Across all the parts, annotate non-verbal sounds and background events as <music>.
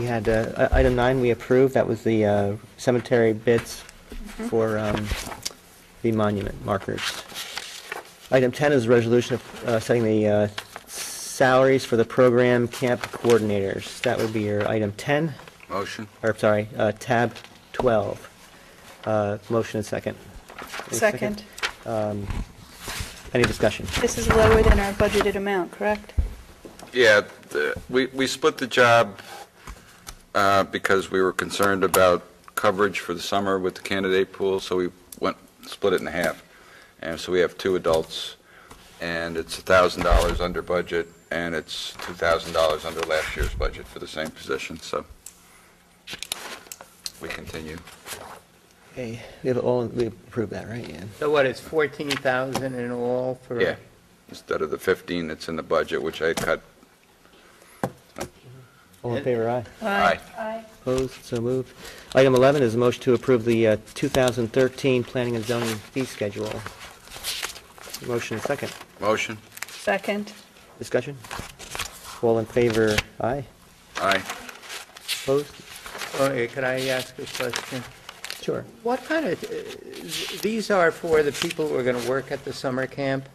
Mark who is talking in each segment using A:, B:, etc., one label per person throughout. A: We had, uh, i- item nine, we approved, that was the uh, cemetery bids for um, the monument markers. Item 10 is a resolution of uh, setting the uh, salaries for the program camp coordinators. That would be your item 10,
B: Motion?
A: or, sorry, uh, tab 12. Uh, Motion and second. Any
C: Second.
A: Any discussion?
C: This is lower than our budgeted amount, correct?
B: Yeah, the- we, we split the job uh, because we were concerned about coverage for the summer with the candidate pool, so we went, split it in half. And so we have two adults, and it's $1,000 under budget, and it's $2,000 under last year's budget for the same position, so we continue.
A: Okay, we have all, we approved that, right, Yeah.
D: So what, it's 14,000 in all for?
B: Yeah, instead of the 15 that's in the budget, which I cut.
A: All in favor, aye?
B: Aye.
A: Opposed, so moved. Item 11 is a motion to approve the uh, 2013 Planning and Zoning Fee Schedule. Motion and second.
B: Motion?
C: Second.
A: Discussion? All in favor, aye.
B: Aye.
A: Opposed?
D: Okay, could I ask a question?
A: Sure.
D: What kind of, uh, th- these are for the people who are going to work at the summer camp?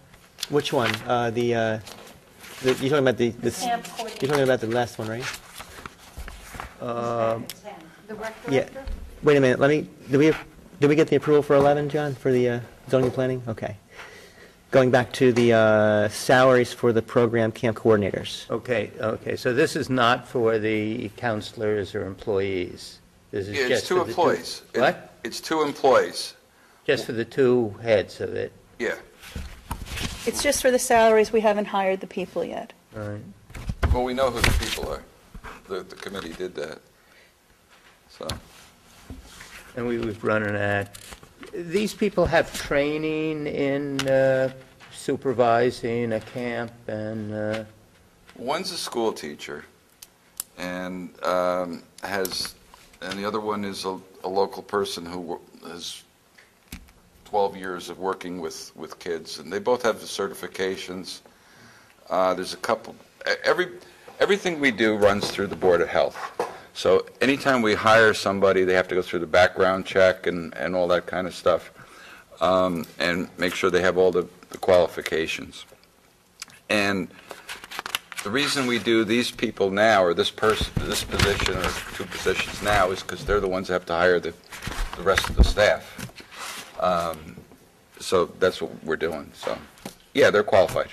A: Which one? Uh, The, uh, the- you're talking about the, this- you're
E: Camp
A: talking about the last one, right?
E: The rec
A: Yeah.
E: director?
A: Wait a minute, let me, did we, did we get the approval for 11, John, for the uh, zoning and planning? Okay. Going back to the uh, salaries for the program camp coordinators.
D: Okay, okay, so this is not for the counselors or employees? This is
B: Yeah,
D: just
B: It's
D: for
B: two
D: the
B: employees. It-
D: What?
B: It's two employees,
D: Just for the two heads of it?
B: yeah.
C: It's just for the salaries, we haven't hired the people yet.
D: All right.
B: Well, we know who the people are. The, the committee did that. So,
D: And we was running ad. These people have training in uh, supervising a camp and, uh,
B: one's a school teacher and um, has, and the other one is a, a local person who wo- has 12 years of working with, with kids. And they both have the certifications. Uh, There's a couple, e- every, everything we do runs through the Board of Health. So anytime we hire somebody, they have to go through the background check and, and all that kind of stuff, um, and make sure they have all the the qualifications. And the reason we do these people now, or this person, this position, or two positions now, is because they're the ones that have to hire the, the rest of the staff. Um, So that's what we're doing, so, yeah, they're qualified.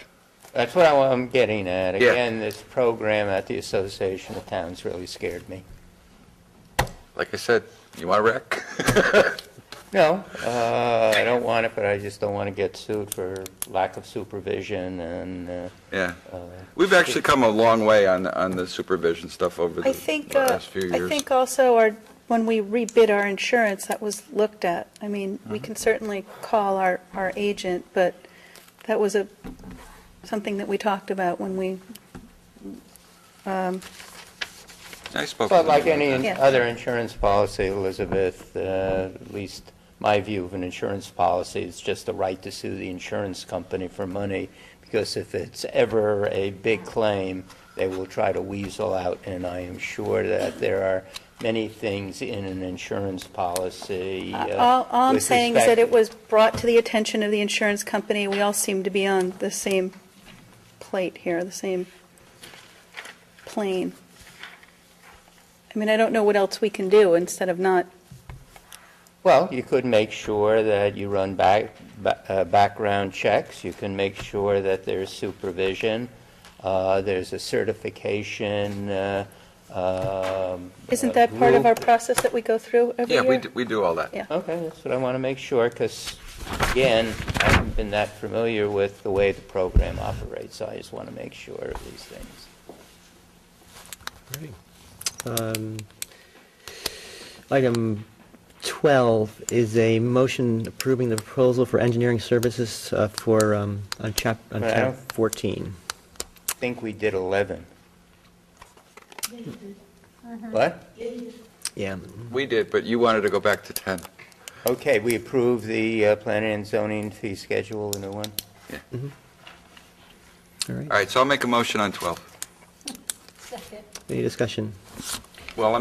D: that's what I- I'm getting at.
B: Yeah.
D: Again, this program at the Association of Towns really scared me.
B: Like I said, you want a rec? <laughs>
D: No, uh, I don't want it, but I just don't want to get sued for lack of supervision and, uh,
B: Yeah.
D: uh,
B: We've actually come a long way on, on the supervision stuff over the
C: I think, uh,
B: last few
C: I
B: years.
C: think also our, when we rebid our insurance, that was looked at. I mean, we
B: Mm-hmm.
C: can certainly call our, our agent, but that was a, something that we talked about when we,
B: I spoke
D: but
B: with
D: like
B: them.
D: any
C: Yeah.
D: other insurance policy, Elizabeth, uh, at least my view of an insurance policy, it's just the right to sue the insurance company for money, because if it's ever a big claim, they will try to weasel out, and I am sure that there are many things in an insurance policy. uh,
C: all, all I'm
D: with
C: saying is that
D: respect-
C: it was brought to the attention of the insurance company. We all seem to be on the same plate here, the same plane. I mean, I don't know what else we can do instead of not
D: Well, you could make sure that you run back, ba- uh, background checks, you can make sure that there's supervision, uh, there's a certification, uh, um.
C: Isn't
D: uh,
C: that part of our
D: group.
C: process that we go through every
B: Yeah,
C: year?
B: we, do- we do all that.
C: Yeah.
D: Okay, that's what I want to make sure, because again, I haven't been that familiar with the way the program operates, so I just want to make sure of these things.
A: Um, Item 12 is a motion approving the proposal for engineering services uh, for, um, on chap, on
D: Right, I
A: tab
D: don't-
A: 14.
D: I think we did 11. What?
A: Yeah.
B: We did, but you wanted to go back to 10.
D: Okay, we approve the uh, planning and zoning fee schedule, the new one?
A: All right,
B: All right, so I'll make a motion on 12.
E: Second.
A: any discussion?
B: Well, I mean.